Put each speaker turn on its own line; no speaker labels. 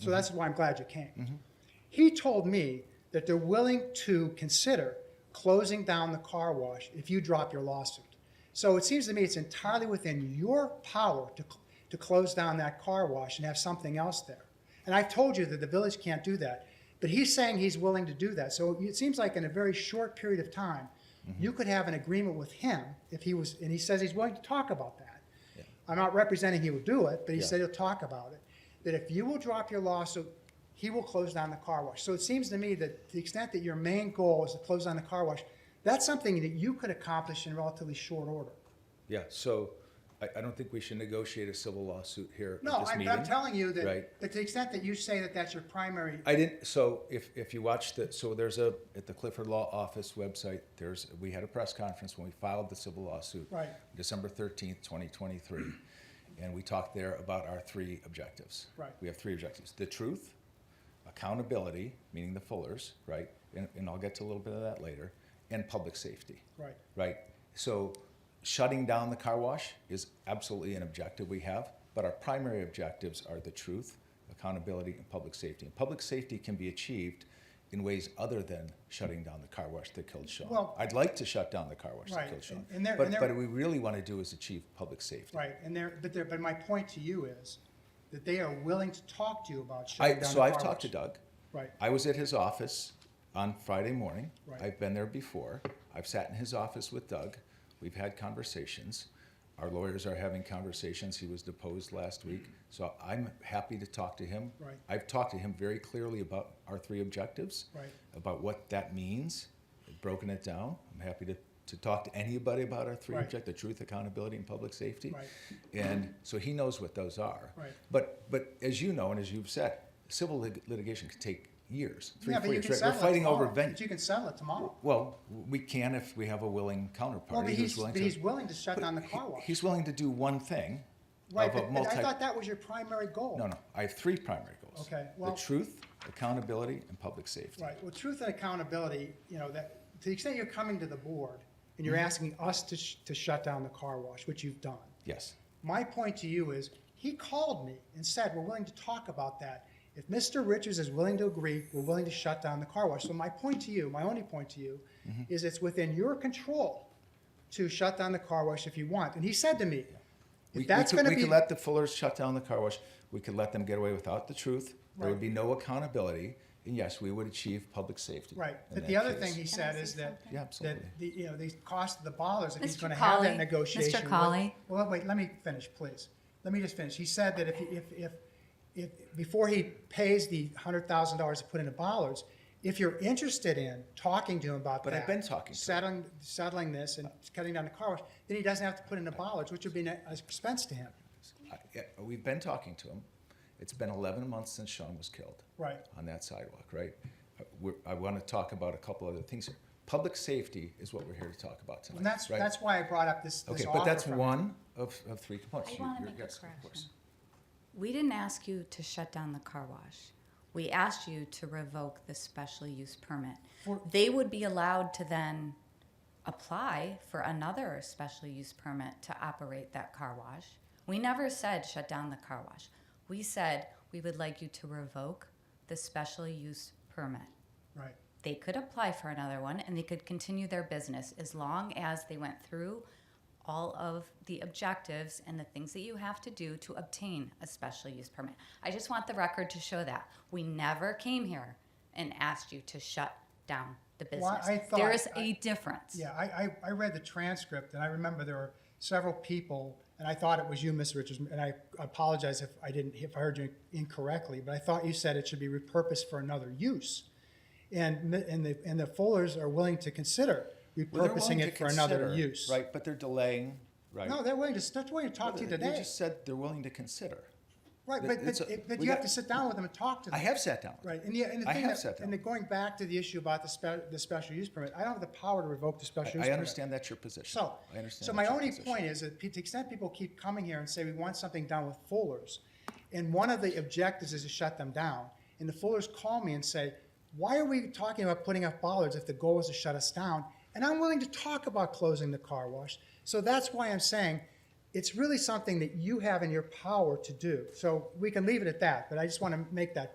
So that's why I'm glad you came. He told me that they're willing to consider closing down the car wash if you drop your lawsuit. So it seems to me it's entirely within your power to, cl- to close down that car wash and have something else there. And I've told you that the village can't do that, but he's saying he's willing to do that. So it seems like in a very short period of time, you could have an agreement with him if he was, and he says he's willing to talk about that. I'm not representing he will do it, but he
Yeah.
said he'll talk about it. That if you will drop your lawsuit, he will close down the car wash. So it seems to me that to the extent that your main goal is to close down the car wash, that's something that you could accomplish in relatively short order.
Yeah, so I, I don't think we should negotiate a civil lawsuit here at
No,
this
I'm,
meeting.
I'm telling you that,
Right.
that to the extent that you say that that's your primary,
I didn't, so if, if you watch the, so there's a, at the Clifford Law Office website, there's, we had a press conference when we filed the civil lawsuit.
Right.
December thirteenth, twenty twenty-three, and we talked there about our three objectives.
Right.
We have three objectives, the truth, accountability, meaning the Fullers, right? And, and I'll get to a little bit of that later, and public safety.
right,
Right. So shutting down the car wash is absolutely an objective we have, but our primary objectives are the truth, accountability, and public safety. And public safety can be achieved in ways other than shutting down the car wash that killed Sean.
Well-
I'd like to shut down the car wash
Right,
that killed Sean.
and- and there-
but
and there-
but what we really want to do is achieve public safety.
right. And there, but there, but my point to you is that they are willing to talk to you about shutting
I,
down
so
the
I've
car
talked to
wash.
Doug.
Right.
I was at his office on Friday morning.
Right.
I've been there before. I've sat in his office with Doug. We've had conversations. Our lawyers are having conversations. He was deposed last week. So I'm happy to talk to him.
Right.
I've talked to him very clearly about our three objectives,
Right.
about what that means, broken it down. I'm happy to, to talk to anybody about our three
Right.
objectives truth, accountability, and public safety.
Right.
And so he knows what those are.
Right.
But, but as you know, and as you've said, civil lit- litigation can take years, three,
Yeah, but
four
you
years.
can
right? We're
settle it
fighting over
tomorrow. But
venue.
You can settle it tomorrow.
Well, we can if we have a willing counterparty
Well, but
who's
he's,
willing
but
to.
he's willing to shut down the car
he-
wash.
He's willing to do one thing
Right,
of a
but, but
multi.
I thought that was your primary goal.
no, no. I have three primary goals.
Okay, well-
the truth, accountability, and public safety.
Right, well, truth and accountability, you know, that, to the extent you're coming to the board and
Mm-hmm.
you're asking us to, sh- to shut down the car wash, which you've done,
Yes.
my point to you is, he called me and said, we're willing to talk about that. If Mr. Richards is willing to agree, we're willing to shut down the car wash. So my point to you, my only point to you,
Mm-hmm.
is it's within your control to shut down the car wash if you want. And he said to me,
We,
if that's
we could,
gonna
we
be,
could let the Fullers shut down the car wash. We could let them get away without the truth. There
Right.
would be no accountability. And yes, we would achieve public safety.
right,
in
but
that
the other
case.
thing he
Can I
said
say
is that,
something?
Yeah, absolutely.
that the, you know, the cost of the dollars, if he's
Mr.
going to have
Colley,
that
Mr.
negotiation. with-
Colley.
Well, wait, let me finish, please. Let me just finish. He said that if, he- if, if, if, before he pays the hundred thousand dollars to put into bollards, if you're interested in talking to him about that.
But I've been talking to him.
Settling, settling this and cutting down the car wash, then he doesn't have to put into bollards, which would be an expense to him.
I- yeah, We've been talking to him. It's been 11 months since Sean was killed.
Right.
On that sidewalk, right? Uh, We're, I want to talk about a couple other things here. Public safety is what we're here to talk about tonight.
And that's,
right?
that's why I brought up this, this
Okay,
offer
but that's
from him.
one of, of three components.
I
You-
wanna
you're-
make a
yes, of
correction.
course.
We didn't ask you to shut down the car wash. We asked you to revoke the special use permit.
For-
They would be allowed to then apply for another special use permit to operate that car wash. We never said shut down the car wash. We said we would like you to revoke the special use permit.
Right,
They could apply for another one and they could continue their business as long as they went through all of the objectives and the things that you have to do to obtain a special use permit. I just want the record to show that. We never came here and asked you to shut down the business.
Well, I thought-
there is
I-
a difference.
yeah, I, I, I read the transcript and I remember there were several people, and I thought it was you, Mr. Richards, and I apologize if I didn't, if I heard you incorrectly, but I thought you said it should be repurposed for another use. And, the- and the, and the Fullers are willing to consider
Well, they're willing
repurposing
to
it for another
consider,
use.
Right, but they're delaying, right?
No, they're willing to, that's willing to talk to you
You
today.
just said they're willing to consider.
Right, but,
it's
but,
a-
but
we
you have
got-
to sit down with them and talk to them.
I have sat down. with
Right, and the, and the
I
thing
have
that-
sat down.
and the, going back to the issue about the spe, the special use permit, I don't have the power to revoke the special use
them. I
permit.
understand that's your position.
So,
I understand
so
that's
my
your
only
position.
point is that to the extent people keep coming here and say we want something done with Fuller's, and one of the objectives is to shut them down, and the Fullers call me and say, why are we talking about putting up bollards if the goal is to shut us down? And I'm willing to talk about closing the car wash. So that's why I'm saying it's really something that you have in your power to do. So we can leave it at that, but I just want to make that